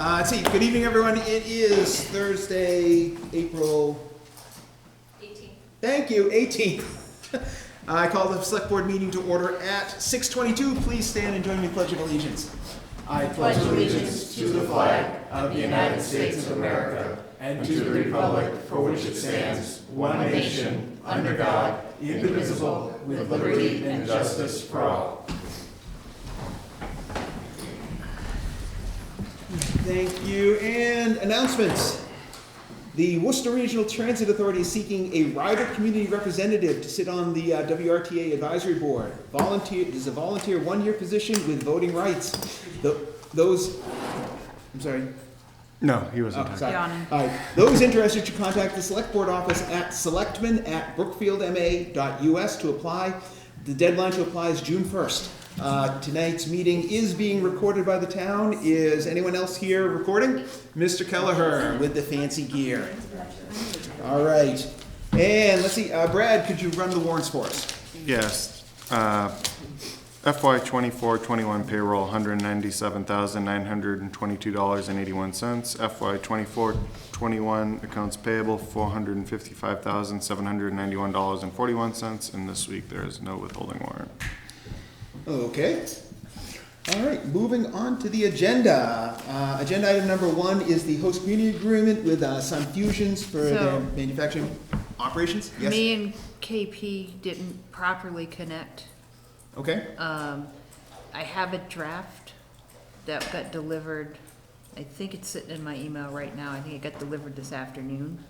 Uh, see, good evening, everyone. It is Thursday, April, Eighteen. thank you, 18th. I call the select board meeting to order at 6:22. Please stand and join me in pledge of allegiance. I pledge allegiance to the flag of the United States of America and to the republic for which it stands, one nation, under God, indivisible, with liberty and justice for all. Thank you. And announcements. The Worcester Regional Transit Authority is seeking a rider community representative to sit on the uh, WRTA Advisory Board. Volunteer, this is a volunteer one-year position with voting rights. Tho- Those, I'm sorry, No, he wasn't. Oh, sorry. Donna. All right. Those interested should contact the select board office at selectmen@brookfieldma.us to apply. The deadline to apply is June first. Uh, tonight's meeting is being recorded by the town. Is anyone else here recording? Mr. Kelleher with the fancy gear. All right. And let's see, uh, Brad, could you run the warrants for us? Yes. uh, FY twenty-four, twenty-one payroll, hundred ninety-seven thousand, nine hundred and twenty-two dollars and eighty-one cents. FY twenty-four, twenty-one accounts payable, four hundred and fifty-five thousand, seven hundred and ninety-one dollars and forty-one cents. And this week, there is no withholding warrant. Okay. All right, moving on to the agenda. Uh, agenda item number one is the host community agreement with uh, Sun Fusions for their So- manufacturing operations. Yes. Me and KP didn't properly connect. Okay. Um, I have a draft that got delivered, I think it's sitting in my email right now, I think it got delivered this afternoon.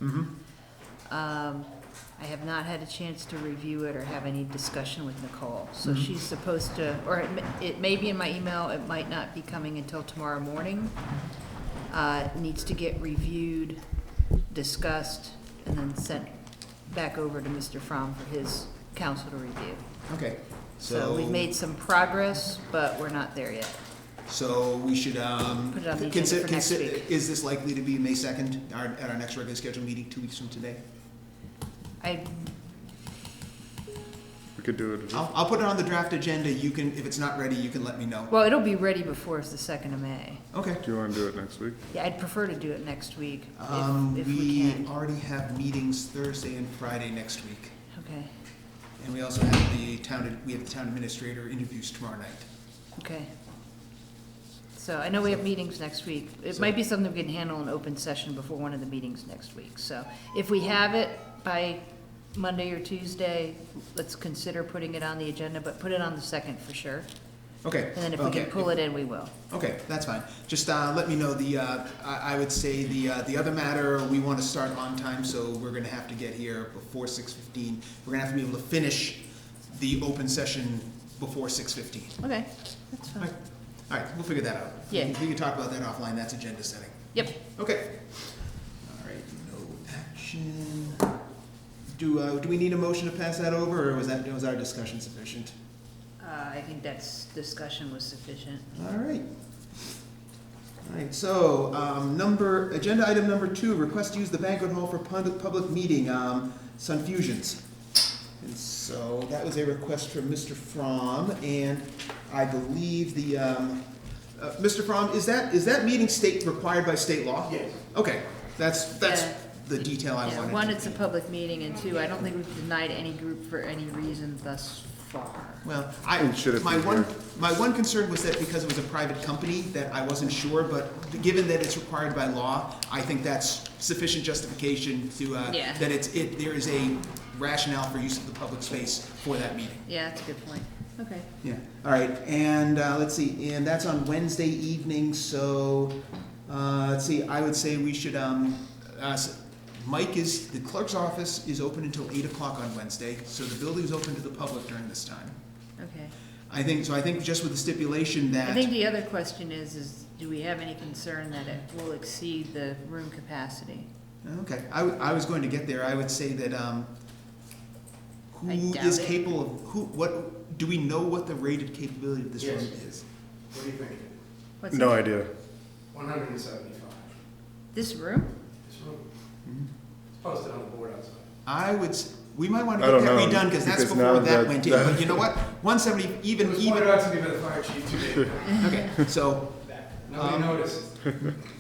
Um, I have not had a chance to review it or have any discussion with Nicole, so she's supposed to, or it may- it may be in my email, it might not be coming until tomorrow morning. Uh, it needs to get reviewed, discussed, and then sent back over to Mr. Fromm for his counsel to review. Okay. So we've made some progress, but we're not there yet. So we should um, Put it on the agenda consider. for next consider- week. Is this likely to be May second, our, at our next regularly scheduled meeting, two weeks from today? I, We could do it. I'll, I'll put it on the draft agenda. You can, if it's not ready, you can let me know. well, it'll be ready before it's the second of May. Okay. Do you want to do it next week? Yeah, I'd prefer to do it next week Um, if, if we we can. already have meetings Thursday and Friday next week. Okay, And we also have the town, we have the town administrator interviews tomorrow night. okay. So I know we have meetings next week. It So- might be something we can handle in open session before one of the meetings next week. So if we have it by Monday or Tuesday, let's consider putting it on the agenda, but put it on the second for sure. Okay. And then if we can pull it in, we will. Okay, that's fine. Just, uh, let me know the, uh, I, I would say the, uh, the other matter, we wanna start on time, so we're gonna have to get here before six fifteen. We're gonna have to be able to finish the open session before six fifteen. Okay, that's fine. Alright, alright, we'll figure that out. We can- Yeah. We can talk about that offline, that's agenda setting. Yep. Okay. Alright, no action. Do, uh, do we need a motion to pass that over, or was that, was our discussion sufficient? Uh, I think that's, discussion was sufficient. All right. All right, so, um, number, agenda item number two, request to use the banquet hall for pub- public meeting, um, Sun Fusions. And so that was a request from Mr. Fromm, and I believe the, um, uh, Mr. Fromm, is that, is that meeting state, required by state law? Yes. Okay, that's, that's Yeah. the detail I Yeah, wanted. One, it's a public meeting, and two, I don't think we've denied any group for any reason thus far. Well, I, And should it my be one, here? my one concern was that because it was a private company, that I wasn't sure, but given that it's required by law, I think that's sufficient justification to, uh, Yeah. that it's, it, there is a rationale for use of the public space for that meeting. Yeah, that's a good point. Okay. Yeah, all right, and, uh, let's see, and that's on Wednesday evening, so, uh, let's see, I would say we should, um, uh, s- Mike is, the clerk's office is open until eight o'clock on Wednesday, so the building's open to the public during this time. Okay. I think, so I think just with the stipulation I that, think the other question is, is do we have any concern that it will exceed the room capacity? okay, I, w- I was going to get there, I would say that, um, I who doubt is it. capable of, who, what, do we know what the rated capability of this room Yes. is? What do you think? What's No that? idea. One hundred and seventy-five. This room? This room. Mm-hmm. It's posted on the board outside. I would, s- we might wanna I get don't that know, redone, cause that's because now before that that- went in, that- but you know what? One seventy, It even, was pointed even, out to me by the fire chief today. okay, so, Nobody noticed.